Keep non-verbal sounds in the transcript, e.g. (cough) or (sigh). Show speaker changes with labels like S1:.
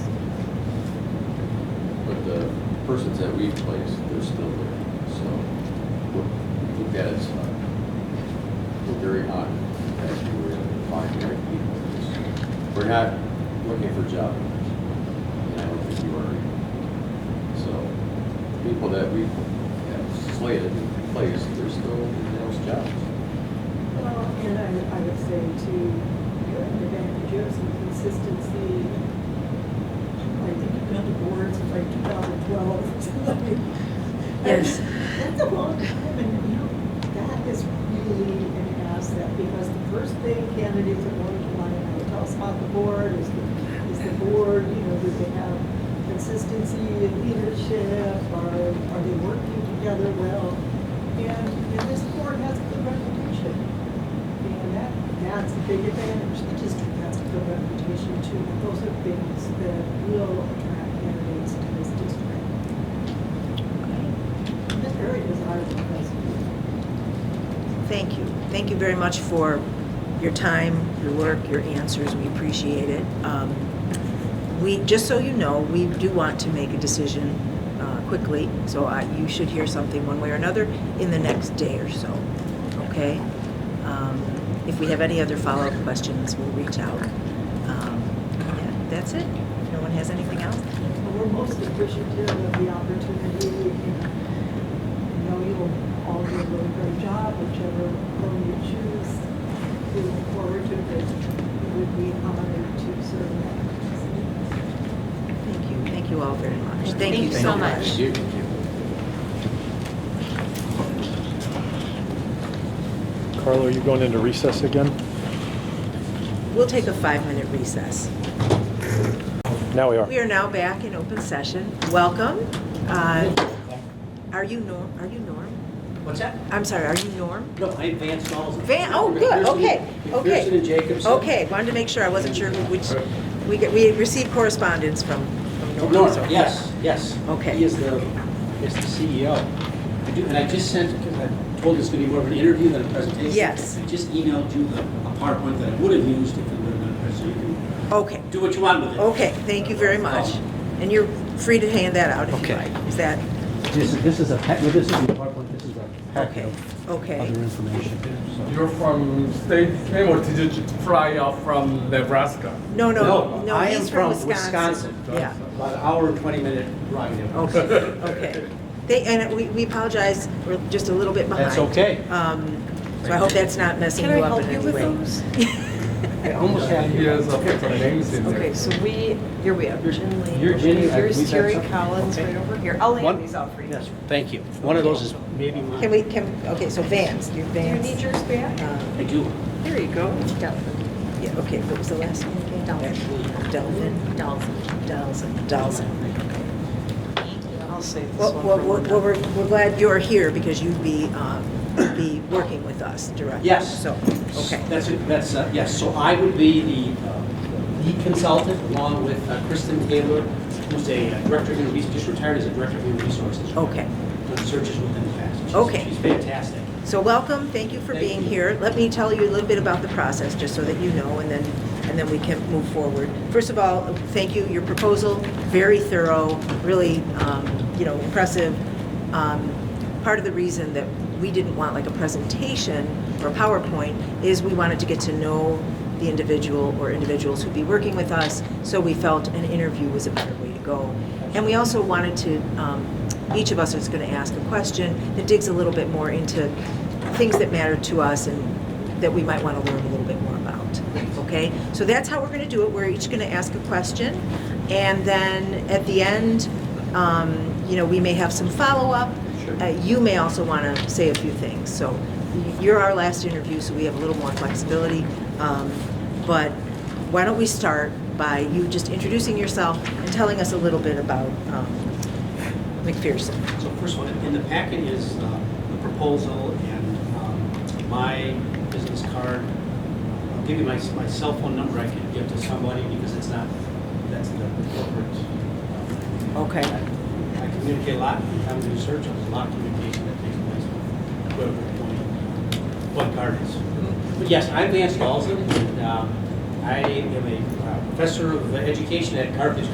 S1: the persons that we've placed, they're still there, so we look at it as, uh, we're very honored that you were able to find the right people. We're not looking for job openers, and I don't think you are either. So, people that we have slated and placed, they're still in those jobs.
S2: Well, and I, I would say to your advantages and consistency. I think you've been to boards since like (laughs) 2012.
S3: Yes.
S2: That's a long time, and you know, that is really an asset, because the first thing candidates are going to want to know, tell us about the board, is the, is the board, you know, do they have consistency in leadership, are, are they working together well? And, and this board has a good reputation, and that, that's a big advantage, the district has a good reputation too, but those are things that will attract candidates to this district. And It's very desirable, that's.
S3: Thank you. Thank you very much for your time, your work, your answers. We appreciate it. Um, We, just so you know, we do want to make a decision uh, quickly, so I- you should hear something one way or another in the next day or so, okay? Um, If we have any other follow-up questions, we'll reach out. Um, yeah, That's it? No one has anything else?
S2: Well, We're most appreciative of the opportunity. You know, you'll all do a really great job, whichever role you choose. We look forward to it. We would be honored to serve that. position.
S3: Thank you, thank you all very much. Thank you so much.
S1: Thank you. Thank you.
S4: Carla, are you going into recess again?
S3: We'll take a five-minute recess.
S4: Now we are.
S3: We are now back in open session. Welcome. Uh, Are you Norm? Are you Norm?
S5: What's that?
S3: I'm sorry, are you Norm?
S5: No, I advanced all of them.
S3: Van, oh, good,
S5: McPherson-
S3: okay,
S5: McPherson and
S3: okay.
S5: Jacobson.
S3: Okay, wanted to make sure, I wasn't sure who- which, we get- we received correspondence from. from
S5: Oh,
S3: Norm,
S5: Norm,
S3: so-
S5: yes, yes.
S3: Okay.
S5: He is the, is the CEO. I do, and I just sent, because I told this to be more of an interview than a presentation.
S3: Yes.
S5: I just emailed you the- a PowerPoint that I would have used if it would have been, a presentation. you
S3: Okay,
S5: can do what you want with it. Oh.
S3: okay, thank you very much. And you're free to hand that out if
S5: Okay.
S3: you like. Is that,
S5: This, this is a, this isn't a PowerPoint, this is a
S3: okay, okay.
S5: information.
S6: You're from state name or did you fly out from Nebraska?
S3: No, no,
S5: No,
S3: no,
S5: I am
S3: he's from
S5: from
S3: Wisconsin.
S5: Wisconsin.
S3: Yeah.
S5: About an hour and 20 minute drive. there.
S3: Okay, okay. They, and we, we apologize, we're just a little bit behind.
S5: That's okay.
S3: Um, so I hope that's not messing you up in any way.
S5: I almost had you.
S6: Years of the names in there.
S7: Okay, so we, here we have Jin Lee.
S5: You're Jin, uh,
S7: Here's
S5: we've got
S7: Terry
S5: some-
S7: Collins
S5: okay.
S7: right over here. I'll
S5: One-
S7: hand these out for you.
S5: Yes, thank you. One of those is maybe mine.
S3: Can we, can, okay, so Vans, your
S7: Do you
S3: Vans.
S7: need yours back?
S3: um,
S5: I do.
S7: There you go. Delvin.
S3: Yeah, okay, what was the last name again? Delvin. Delvin? Dalzin. Dalzin, Dalzin.
S7: I'll save this
S3: Well,
S7: one
S3: well,
S7: for
S3: we're,
S7: later.
S3: well, we're we're glad you're here because you'd be, um, be working with us directly.
S5: Yes.
S3: So, okay.
S5: That's, it. that's, uh, yes, so I would be the uh, lead consultant along with uh, Kristen Taylor, who's a uh, director of human resources, just retired as a director of human resources.
S3: Okay.
S5: Done searches within the past. She's-
S3: Okay.
S5: She's fantastic.
S3: So welcome, thank you for
S5: Thank
S3: being
S5: you.
S3: here. Let me tell you a little bit about the process, just so that you know, and then, and then we can move forward. First of all, thank you, your proposal, very thorough, really, um, you know, impressive. Um, Part of the reason that we didn't want like a presentation or a PowerPoint is we wanted to get to know the individual or individuals who'd be working with us, so we felt an interview was a better way to go. And we also wanted to, um, each of us is going to ask a question that digs a little bit more into things that matter to us and that we might want to learn a little bit more about. Okay? So that's how we're going to do it. We're each going to ask a question, and then at the end, um, you know, we may have some follow-up. Uh, You may also want to say a few things. So you're our last interview, so we have a little more flexibility. Um, But why don't we start by you just introducing yourself and telling us a little bit about um, McPherson?
S5: So first one, in the packet is uh, the proposal and um, my business card. I'll give you my, my cell phone number I can give to somebody because it's not, that's the corporate. uh,
S3: Okay.
S5: I communicate a lot, and time to do search, there's a lot of communication that takes place with whoever appointed, what card is. But yes, I'm Vance Dalzin, and um, I am a uh, professor of uh, education at Carthage